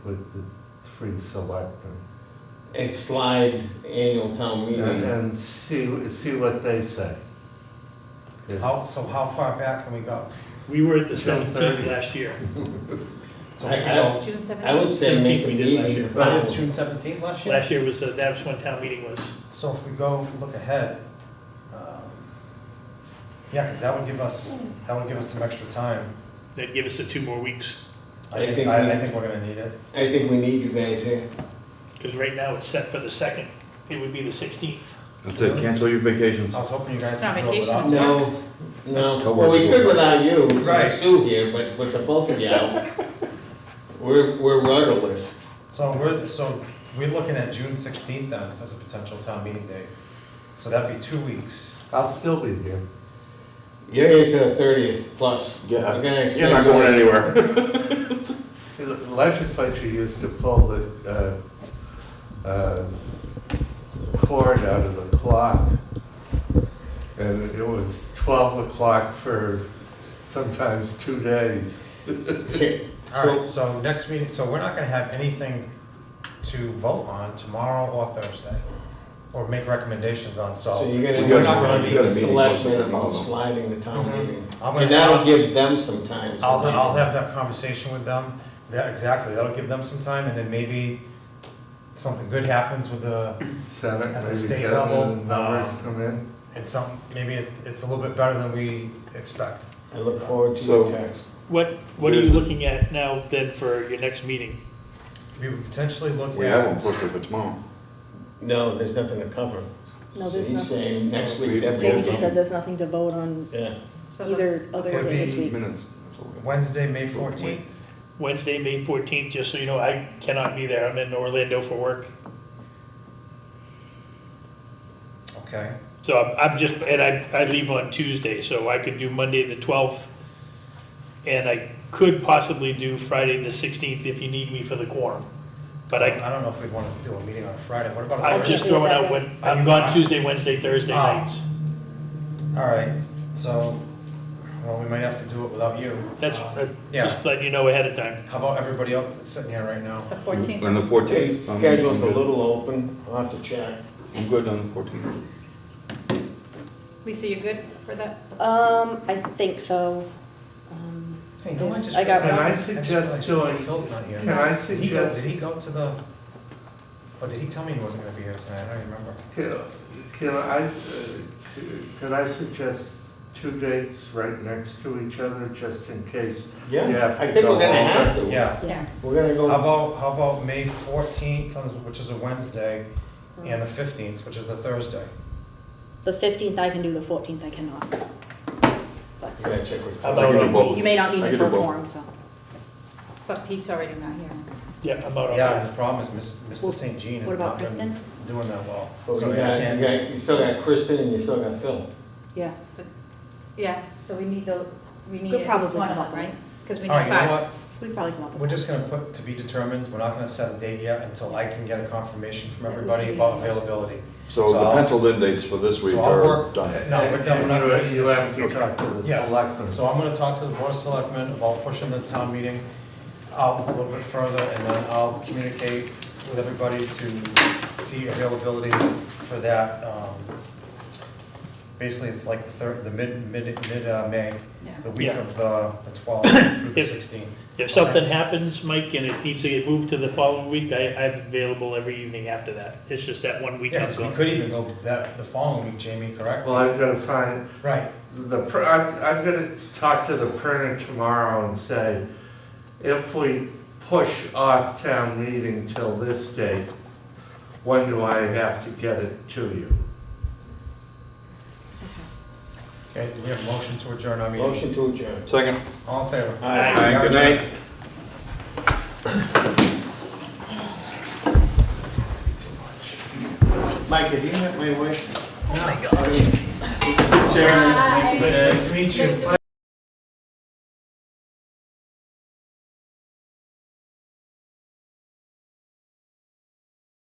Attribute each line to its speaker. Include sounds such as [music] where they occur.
Speaker 1: with the three selectmen.
Speaker 2: and slide annual town
Speaker 3: Mm-hmm.
Speaker 1: And,
Speaker 2: meeting.
Speaker 1: and see, see what they say. 'Cause-
Speaker 4: How, so how far back can we go?
Speaker 5: We were at the
Speaker 1: Ten thirty.
Speaker 5: seventeenth last year.
Speaker 4: So we
Speaker 2: I-
Speaker 4: can go
Speaker 6: June seventeenth?
Speaker 2: I would say make the
Speaker 5: Seventeenth we did last
Speaker 2: meeting.
Speaker 5: year.
Speaker 4: Was
Speaker 2: final.
Speaker 4: it June seventeenth last year?
Speaker 5: Last year was, the- that was when town meeting was.
Speaker 4: So if we go, if we look ahead, um, yeah, because that would give us, that would give us some extra time.
Speaker 5: They'd give us the two more weeks,
Speaker 4: I
Speaker 2: I
Speaker 4: think,
Speaker 2: think
Speaker 4: I
Speaker 2: we-
Speaker 4: I think we're gonna need it.
Speaker 2: I think we need you guys here.
Speaker 5: because right now it's set for the second. It would be the sixteenth.
Speaker 3: That's it, cancel your vacations.
Speaker 4: I was hoping you guys
Speaker 6: It's not
Speaker 4: could do it
Speaker 6: vacation.
Speaker 4: without.
Speaker 2: No, no,
Speaker 3: Towards
Speaker 2: well, we could
Speaker 3: board.
Speaker 2: without you,
Speaker 4: Right.
Speaker 2: Sue here, but with the both of you out, we're, we're rudderless.
Speaker 4: So we're, so we're looking at June sixteenth then as a potential town meeting date. So that'd be two weeks.
Speaker 1: I'll still be there.
Speaker 2: You're here to the thirtieth plus. We're gonna
Speaker 3: You're not
Speaker 2: extend
Speaker 3: going
Speaker 2: yours.
Speaker 3: anywhere.
Speaker 1: The Legislature used to pull the, uh, uh, cord out of the clock. And it was twelve o'clock for sometimes two days.
Speaker 2: Okay,
Speaker 4: All right,
Speaker 2: So,
Speaker 4: so next meeting, so we're not gonna have anything to vote on tomorrow or Thursday, or make recommendations on,
Speaker 2: so
Speaker 4: so.
Speaker 2: you're
Speaker 3: So
Speaker 2: gonna,
Speaker 3: you
Speaker 2: we're
Speaker 3: gotta-
Speaker 2: not gonna
Speaker 3: you
Speaker 2: be
Speaker 3: gotta
Speaker 2: the
Speaker 3: meet
Speaker 2: selectmen
Speaker 3: once a
Speaker 2: about
Speaker 3: month.
Speaker 2: sliding the town
Speaker 4: Mhm.
Speaker 2: meeting.
Speaker 4: I'm
Speaker 2: And
Speaker 4: gonna-
Speaker 2: that'll give them some time. so
Speaker 4: I'll,
Speaker 2: they-
Speaker 4: I'll have that conversation with them, that, exactly, that'll give them some time, and then maybe something good happens with the,
Speaker 1: Senate,
Speaker 4: At the
Speaker 1: maybe
Speaker 4: state
Speaker 1: get
Speaker 4: level,
Speaker 1: the numbers
Speaker 4: um,
Speaker 1: come in.
Speaker 4: and some, maybe it, it's a little bit better than we expect.
Speaker 2: I look forward to
Speaker 3: So-
Speaker 2: your text.
Speaker 5: What, what are you
Speaker 3: There's-
Speaker 5: looking at now then for your next meeting?
Speaker 4: We would potentially look
Speaker 3: [laughs] We have one
Speaker 4: at,
Speaker 3: posted for tomorrow.
Speaker 2: No, there's nothing to cover.
Speaker 7: No, there's
Speaker 2: So he's
Speaker 7: nothing.
Speaker 2: saying next
Speaker 3: We-
Speaker 2: week,
Speaker 3: we
Speaker 2: that's
Speaker 7: Dave
Speaker 3: have
Speaker 7: just
Speaker 2: all.
Speaker 7: said there's nothing to vote on
Speaker 2: Yeah,
Speaker 6: So the-
Speaker 7: either other
Speaker 4: Would
Speaker 7: day this
Speaker 4: be-
Speaker 7: week.
Speaker 3: Minutes. that's all we have.
Speaker 4: Wednesday, May fourteenth,
Speaker 5: Wednesday, May fourteenth, just so you know, I cannot be there. I'm in Orlando for work.
Speaker 4: okay,
Speaker 5: So I'm, I'm just, and I, I leave on Tuesday, so I could do Monday the twelfth. And I could possibly do Friday the sixteenth if you need me for the quorum. But I,
Speaker 4: I don't know if we'd wanna do a meeting on Friday, what about a
Speaker 5: I'm
Speaker 7: can't
Speaker 5: just
Speaker 7: do it
Speaker 4: Thursday?
Speaker 5: throwing
Speaker 7: that
Speaker 5: out
Speaker 7: day.
Speaker 5: when, I'm gone Tuesday, Wednesday, Thursday
Speaker 4: Ah.
Speaker 5: nights.
Speaker 4: All right, so, well, we might have to do it without you.
Speaker 5: That's,
Speaker 4: Um,
Speaker 5: uh,
Speaker 4: Yeah,
Speaker 5: just letting you know ahead of time.
Speaker 4: how about everybody else that's sitting here right now?
Speaker 6: The fourteenth?
Speaker 3: On the
Speaker 2: his
Speaker 3: fourteenth.
Speaker 2: schedule's a little open, I'll have to check.
Speaker 3: I'm good on the fourteenth.
Speaker 6: Lisa, you good for that?
Speaker 7: Um, I think so. Um,
Speaker 4: Hey, no, just
Speaker 7: I got
Speaker 1: one.
Speaker 4: realized-
Speaker 1: Can I
Speaker 4: just
Speaker 1: suggest
Speaker 4: realized
Speaker 1: doing-
Speaker 4: Phil's not here.
Speaker 1: Can I
Speaker 4: Did he go,
Speaker 1: suggest,
Speaker 4: did he go to the, or did he tell me he wasn't gonna be here tonight? I don't remember.
Speaker 1: can can I, uh, c- could I suggest two dates right next to each other, just in case?
Speaker 2: Yeah,
Speaker 1: Yeah,
Speaker 2: I think we're gonna
Speaker 1: go
Speaker 2: have to.
Speaker 4: Yeah,
Speaker 7: yeah.
Speaker 2: We're gonna
Speaker 4: how
Speaker 2: go,
Speaker 4: about, how about May fourteenth, which is a Wednesday,
Speaker 7: Hmm.
Speaker 4: and the fifteenth, which is the Thursday?
Speaker 7: The fifteenth I can do, the fourteenth I cannot.
Speaker 2: we gotta check with.
Speaker 5: How
Speaker 3: I can do both.
Speaker 7: You may not need
Speaker 3: I
Speaker 7: me
Speaker 3: can
Speaker 7: for a
Speaker 3: do both.
Speaker 7: quorum, so.
Speaker 6: But Pete's already not here.
Speaker 5: Yeah, I'm out on
Speaker 4: Yeah, the
Speaker 5: that.
Speaker 4: problem is Miss- Mr.
Speaker 7: Well,
Speaker 4: St. Jean
Speaker 7: what
Speaker 4: has
Speaker 7: about
Speaker 4: not been
Speaker 7: Kristen?
Speaker 4: doing that well.
Speaker 2: But
Speaker 4: So
Speaker 2: you
Speaker 4: I
Speaker 2: got,
Speaker 4: can't- Oh,
Speaker 2: you got, you still got Kristen and you still got Phil.
Speaker 7: Yeah.
Speaker 6: Yeah, so we need the, we need
Speaker 7: We'll
Speaker 6: at
Speaker 7: probably
Speaker 6: least one of
Speaker 7: come
Speaker 6: them,
Speaker 7: up
Speaker 6: right? Because we
Speaker 4: All
Speaker 6: need
Speaker 4: right, you know
Speaker 6: five.
Speaker 4: what?
Speaker 7: We probably come up
Speaker 4: We're
Speaker 7: with
Speaker 4: just gonna put to be determined, we're not gonna set a date yet until I can get a confirmation from
Speaker 6: That would
Speaker 4: everybody
Speaker 6: be-
Speaker 4: about availability.
Speaker 3: So
Speaker 4: So
Speaker 3: the
Speaker 4: I'll-
Speaker 3: penciled in dates for this week
Speaker 4: So I'll
Speaker 3: are
Speaker 4: work-
Speaker 3: done.
Speaker 4: No, we're done, we're not
Speaker 1: You-
Speaker 4: ready to
Speaker 1: You have to talk
Speaker 3: discuss.
Speaker 1: to the
Speaker 4: Yes,
Speaker 1: selectmen.
Speaker 4: so I'm gonna talk to the board of selectmen about pushing the town meeting out a little bit further, and then I'll communicate with everybody to see availability for that. um, Basically, it's like the third, the mid, mid, mid, uh, May,
Speaker 6: Yeah.
Speaker 4: the week
Speaker 5: Yeah.
Speaker 4: of the the twelfth through the
Speaker 5: If-
Speaker 4: sixteenth.
Speaker 5: If something happens, Mike, and it needs to get moved to the following week, I, I'm available every evening after that. It's just that one week
Speaker 4: Yeah,
Speaker 5: I'm
Speaker 4: 'cause we
Speaker 5: gone.
Speaker 4: could even go that, the following week, Jamie, correct?
Speaker 1: Well, I've got to find,
Speaker 4: Right,
Speaker 1: the, pr- I'm, I'm going to talk to the printer tomorrow and say, if we push off town meeting till this date, when do I have to get it to you?
Speaker 4: okay, we have a motion to adjourn our meeting.
Speaker 2: Motion to adjourn.
Speaker 3: Second.
Speaker 4: All in favor?
Speaker 2: Aye.
Speaker 4: We are
Speaker 3: Good
Speaker 4: adjourned.
Speaker 3: night.
Speaker 2: Mike, have you met my wife? Oh, my God. Chairman,
Speaker 6: Hi.
Speaker 2: Chairman.
Speaker 4: Nice to meet you.
Speaker 6: Nice to